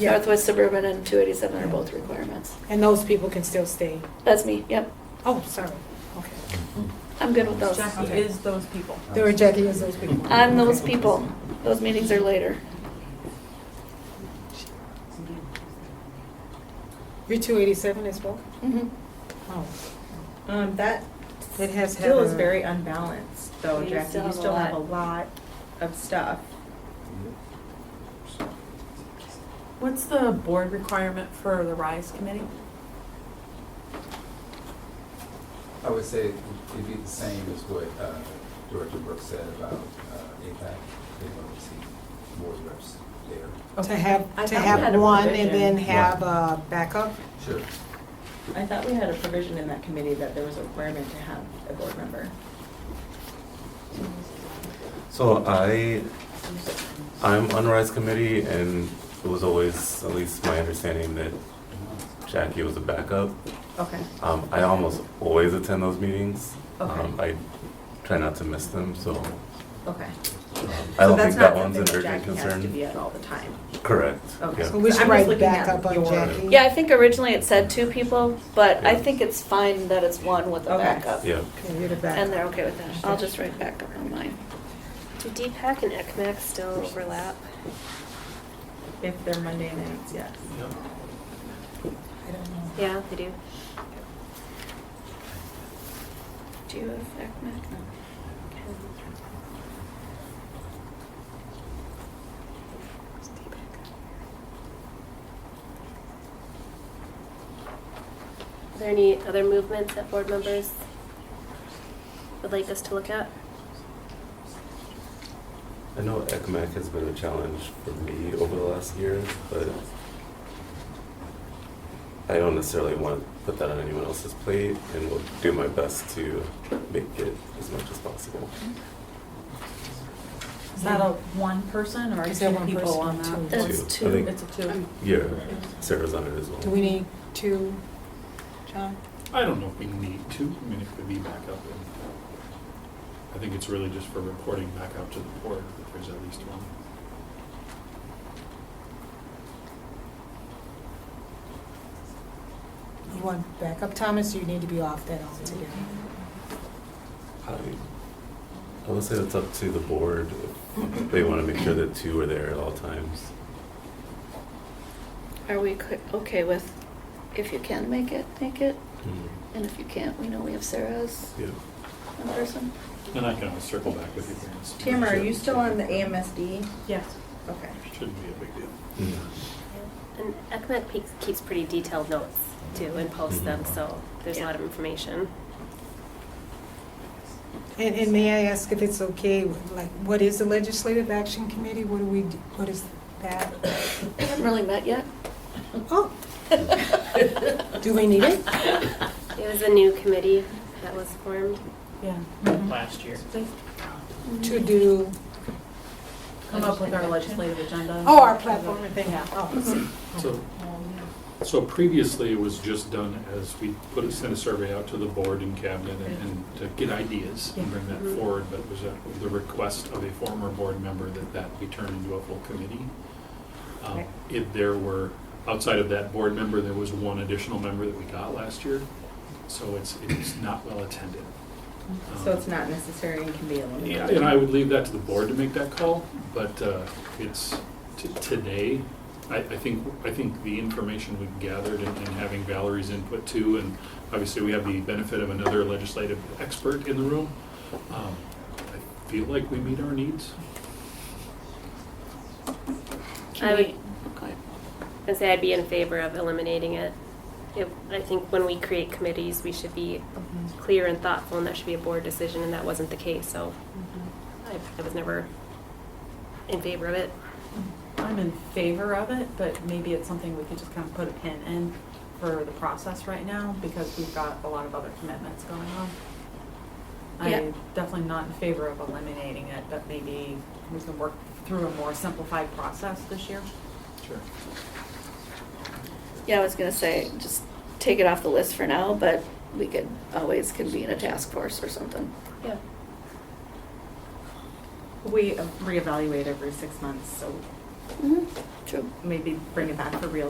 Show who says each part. Speaker 1: Yeah.
Speaker 2: Northwest Suburban and 287 are both requirements.
Speaker 1: And those people can still stay.
Speaker 2: That's me, yep.
Speaker 1: Oh, sorry. Okay.
Speaker 2: I'm good with those.
Speaker 3: Jackie is those people.
Speaker 1: There were Jackie as those people.
Speaker 2: I'm those people. Those meetings are later.
Speaker 1: You're 287 as well?
Speaker 2: Mhm.
Speaker 1: Oh.
Speaker 3: Um, that
Speaker 1: It has
Speaker 3: still is
Speaker 1: had a-
Speaker 3: very unbalanced though,
Speaker 2: You
Speaker 3: Jackie.
Speaker 2: still
Speaker 3: You
Speaker 2: have a
Speaker 3: still have a
Speaker 2: lot.
Speaker 3: lot of stuff.
Speaker 4: What's the board requirement for the RISE committee?
Speaker 5: I would say it'd be the same as what uh, Director Brooks said about uh, APAC, they want to see board reps there.
Speaker 1: To have,
Speaker 3: I
Speaker 1: to
Speaker 3: thought we
Speaker 1: have
Speaker 3: had a
Speaker 1: one and
Speaker 3: provision.
Speaker 1: then have a backup?
Speaker 5: Sure.
Speaker 3: I thought we had a provision in that committee that there was a requirement to have a board member.
Speaker 6: So I, I'm on RISE committee and it was always, at least my understanding, that Jackie was a backup.
Speaker 3: Okay.
Speaker 6: Um, I almost always attend those meetings.
Speaker 3: Okay.
Speaker 6: Um, I try not to miss them, so um,
Speaker 3: Okay.
Speaker 6: I
Speaker 3: So
Speaker 6: don't
Speaker 3: that's
Speaker 6: think
Speaker 3: not
Speaker 6: that one's
Speaker 3: something
Speaker 6: an
Speaker 3: that
Speaker 6: urgent
Speaker 3: Jackie has to
Speaker 6: concern.
Speaker 3: be at all the time.
Speaker 6: Correct,
Speaker 3: Okay.
Speaker 6: yeah.
Speaker 1: So we should
Speaker 3: I'm just
Speaker 1: write
Speaker 3: looking at
Speaker 1: backup on
Speaker 3: your-
Speaker 1: Jackie.
Speaker 2: Yeah, I think originally it said two people, but I
Speaker 6: Yeah.
Speaker 2: think it's fine that it's one with a
Speaker 3: Okay.
Speaker 2: backup.
Speaker 6: Yeah,
Speaker 1: Okay, you're the
Speaker 2: And
Speaker 1: backup.
Speaker 2: they're okay with that. I'll just write backup on mine.
Speaker 7: Do DPAC and ECMAC still overlap?
Speaker 3: If they're Monday nights, yes.
Speaker 1: I don't know.
Speaker 7: Yeah, they do.
Speaker 2: Do you have ECMAC?
Speaker 7: Are there any other movements that board members would like us to look at?
Speaker 6: I know ECMAC has been a challenge for me over the last year, but I don't necessarily want to put that on anyone else's plate and will do my best to make it as much as possible.
Speaker 4: Is that a one person or
Speaker 1: Is
Speaker 4: two
Speaker 1: there one
Speaker 4: people
Speaker 1: person,
Speaker 4: on
Speaker 1: two?
Speaker 4: that?
Speaker 2: That's
Speaker 6: Two. I
Speaker 2: two.
Speaker 6: think-
Speaker 4: It's a two.
Speaker 6: Yeah, Sarah's on it as
Speaker 1: Do we
Speaker 6: well.
Speaker 1: need two, John?
Speaker 8: I don't know if we need to, I mean, it could be back up. in- I think it's really just for reporting back out to the board, if there's at least one.
Speaker 1: You want backup, Thomas, or you need to be off that altogether?
Speaker 6: I I would say that's up to the board. if They want to make sure that two are there at all times.
Speaker 2: Are we cl- okay with, if you can make it, make it? And if you can't, we know we have Sarah's
Speaker 6: Yeah.
Speaker 2: in person.
Speaker 8: And I can always circle back with you. if it's-
Speaker 3: Tamara, are you still on the AMSD?
Speaker 4: Yes.
Speaker 3: Okay.
Speaker 8: Shouldn't be a big deal.
Speaker 7: And ECMAC peaks- keeps pretty detailed notes too and posts them, so there's a lot of information.
Speaker 1: And, and may I ask if it's okay, like, what is the Legislative Action Committee? What do we, do? what is that?
Speaker 2: We haven't really met yet.
Speaker 1: Oh, do we need it?
Speaker 7: It was a new committee that was formed.
Speaker 4: Yeah. Mm-hmm.
Speaker 9: last year.
Speaker 1: To do,
Speaker 4: Come up with our legislative agenda.
Speaker 1: oh, our platform and thing.
Speaker 4: Yeah.
Speaker 1: Oh,
Speaker 8: So, so previously it was just done as we put, a- sent a survey out to the board and cabinet and- and to get ideas and bring that forward, but was at the request of a former board member that that be turned into a full committee. Um,
Speaker 1: Right.
Speaker 8: If there were, outside of that board member, there was one additional member that we got last year, so it's, it's not well attended. Um,
Speaker 3: So it's not necessary and can be eliminated.
Speaker 8: yeah, and I would leave that to the board to make that call, but uh, it's, t- today, I, I think, I think the information we gathered and and having Valerie's input too, and obviously we have the benefit of another legislative expert in the room, um, I feel like we meet our needs.
Speaker 7: I
Speaker 2: Can
Speaker 7: would-
Speaker 2: we, go ahead.
Speaker 7: I'd say I'd be in favor of eliminating it. If, I think when we create committees, we should be clear and thoughtful, and that should be a board decision, and that wasn't the case, so I, I was never in favor of it.
Speaker 4: I'm in favor of it, but maybe it's something we could just kind of put a pin in for the process right now because we've got a lot of other commitments going on.
Speaker 2: Yeah.
Speaker 4: I'm definitely not in favor of eliminating it, but maybe we can work through a more simplified process this year.
Speaker 8: Sure.
Speaker 2: Yeah, I was gonna say, just take it off the list for now, but we could always convene a task force or something.
Speaker 7: Yeah.
Speaker 3: We reevaluate every six months, so
Speaker 2: True.
Speaker 3: maybe bring it back for real